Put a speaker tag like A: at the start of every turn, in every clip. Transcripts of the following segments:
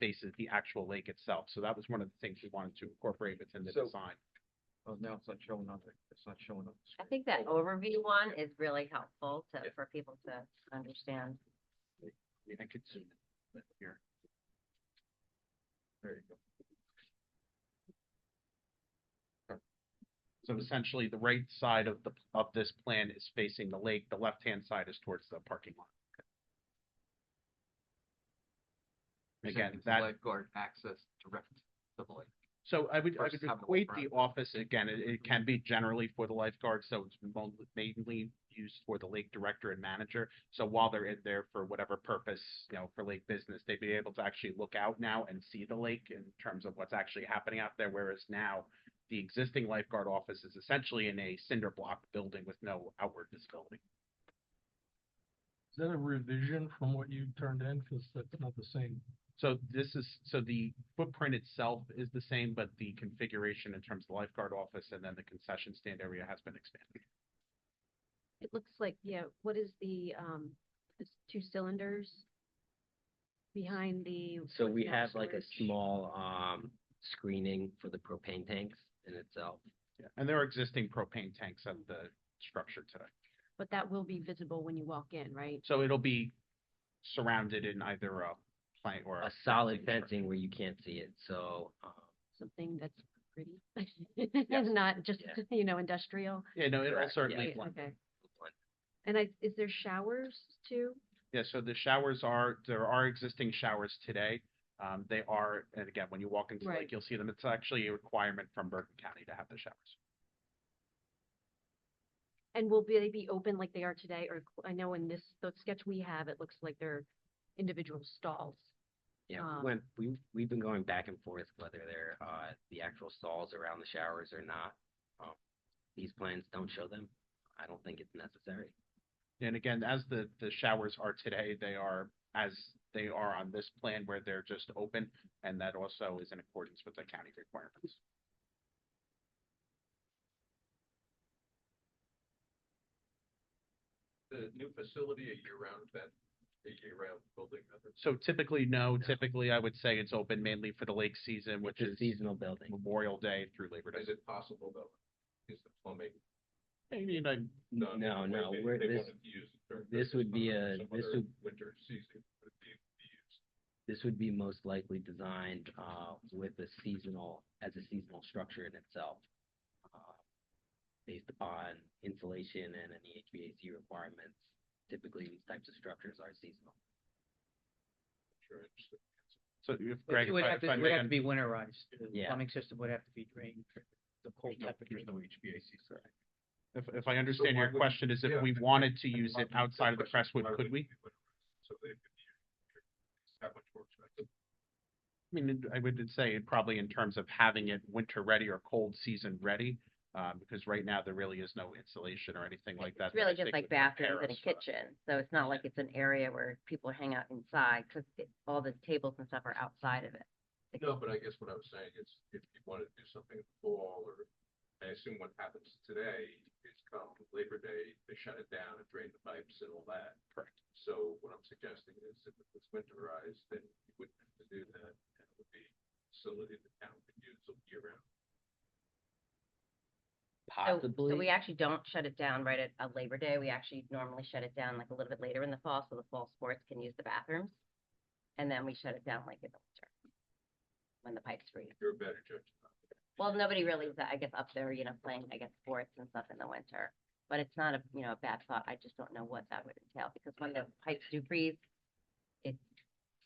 A: faces the actual lake itself. So that was one of the things we wanted to incorporate within the
B: So-
A: design.
B: Oh, now it's not showing on the, it's not showing on the
C: I
B: screen.
C: think that overview one is really helpful to,
B: Yeah.
C: for people to understand.
A: I mean, I could zoom in here.
B: There you go.
A: So essentially, the right side of the, of this plan is facing the lake, the left-hand side is towards the parking lot.
B: You're
A: Again,
B: saying it's
A: that-
B: Lifeguard access direct to the lake.
A: So I would, I
B: Versus
A: would
B: having a
A: equate the
B: front.
A: office, again, it, it can be generally for the lifeguard, so it's mo- mainly used for the lake director and manager. So while they're in there for whatever purpose, you know, for lake business, they'd be able to actually look out now and see the lake in terms of what's actually happening out there, whereas now the existing lifeguard office is essentially in a cinder block building with no outward visibility.
D: Is that a revision from what you turned in? Cause that's not the same.
A: So this is, so the footprint itself is the same, but the configuration in terms of the lifeguard office and then the concession stand area has been expanded.
E: It looks like, yeah, what is the, um, it's two cylinders behind the.
F: So
E: what's
F: we
E: now
F: have like a
E: storage?
F: small, um, screening for the propane tanks in itself.
A: Yeah, and there are existing propane tanks at the structure today.
E: But that will be visible when you walk in, right?
A: So it'll be surrounded in either a plank or
F: A
A: a.
F: solid
A: fencing
F: fencing where you can't see it, so, um,
E: Something that's pretty. It's not just,
F: Yeah.
E: you know, industrial.
A: stru- Yeah, no, it'll
F: Correct, yeah.
A: certainly
E: Right,
A: blend.
E: Okay.
F: one-
E: And I, is there showers too?
A: Yeah, so the showers are, there are existing showers today. Um, they are, and again, when you walk into the lake,
E: Right.
A: you'll see them. It's actually a requirement from Bergen County to have the showers.
E: And will they be open like they are today? Or cl- I know in this, the sketch we have, it looks like they're individual stalls.
F: yeah,
C: Ah.
E: Um,
F: we went, we, we've been going back and forth whether they're, uh, the actual stalls around the showers or not. Um, These plans don't show them, I don't think it's necessary.
A: And again, as the, the showers are today, they are as they are on this plan where they're just open. And that also is in accordance with the county requirements.
B: The new facility a year-round, that, a year-round building,
A: So typically, no, typically I would say it's open mainly for the lake season, which
F: It's a
A: is
F: seasonal building.
A: Memorial Day through Labor Day.
B: it possible though? Is the plumbing
A: I mean, I'm,
B: done
F: No,
B: the way
F: no,
B: they-
F: we're,
B: they
F: this,
B: wanted to use it during
F: this
B: Christmas
F: would be
B: time or
F: a-
B: some
F: this
B: other
F: would-
B: Winter season would be be used.
F: this would be most likely designed, uh, with a seasonal, as a seasonal structure in itself. uh, Based upon insulation and any HVAC requirements, typically these types of structures are seasonal.
B: Sure, interesting.
A: so if
G: It-
A: Greg,
G: It would
A: if I-
G: have
A: if
G: to,
A: I
G: it
A: may,
G: would have to
A: I'm-
G: be winterized. The
F: Yeah.
G: plumbing system would have to be drained for the cold
B: There's no-
G: temperature.
B: There's no HVAC, so.
A: if, if I understand your
B: why would-
A: question is
B: yeah,
A: if we
B: I-
A: wanted to
B: I
A: use
B: love
A: it
B: that
A: outside of the
B: question.
A: Crestwood,
B: Why would
A: could
B: it
A: we?
B: be winterized? So they could use that much more expensive.
A: I mean, it- I would say it probably in terms of having it winter ready or cold season ready. Uh, because right now there really is no insulation or anything like that.
C: It's
A: that
C: really
A: I
C: just
A: think
C: like
A: would prepare
C: bathrooms and a
A: us for-
C: kitchen, so it's not like it's an area where people hang out inside, because all the tables and stuff are outside of it.
B: No, but I guess what I was saying is if you want to do something in the fall or, I assume what happens today is come Labor Day, they shut it down and drain the pipes and all that. Correct. So what I'm suggesting is if it was winterized, then you wouldn't have to do that. and It would be a facility the town could use all year round.
C: So, so we
F: Possibly,
C: actually don't shut it down right at, uh Labor Day. We actually normally shut it down like a little bit later in the fall, so the fall sports can use the bathrooms. And then we shut it down like in the winter. When the pipes freeze.
B: You're a better judge. than I am.
C: Well, nobody really is, I guess, up there, you know, playing, I guess, sports and stuff in the winter. But it's not a, you know, a bad thought. I just don't know what that would entail, because when the pipes do freeze, it's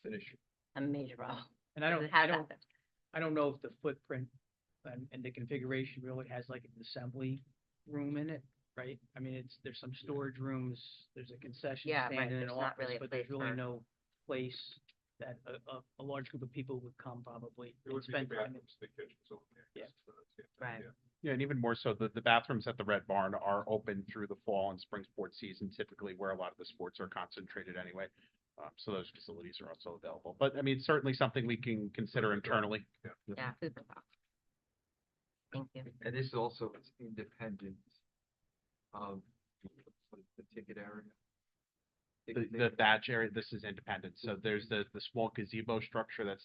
B: Finish.
C: a major problem.
G: And I
C: because
G: don't,
C: it
G: I
C: has
G: don't,
C: happened.
G: I don't know if the footprint and, and the configuration really has like an assembly room in it, right? I mean, it's, there's some storage rooms, there's a concession
C: Yeah,
G: stand
C: right,
G: and an
C: there's not
G: office,
C: really a
G: but there's
C: place
G: really
C: for-
G: no place that a, a, a large group of people would come probably
B: It
G: and
B: would be the
G: spend time. in.
B: bathrooms, the kitchens over there.
G: Yeah.
B: that's what I was getting at,
C: Right.
B: yeah.
A: Yeah, and even more so, the, the bathrooms at the Red Barn are open through the fall and spring sports season, typically where a lot of the sports are concentrated anyway. Um, so those facilities are also available, but I mean, it's certainly something we can consider
B: Right, right.
A: internally.
C: Yeah, food for thought. Thank you.
B: And this also is independent of the ticket area.
A: The, the badge area, this is independent, so there's the, the small gazebo structure that's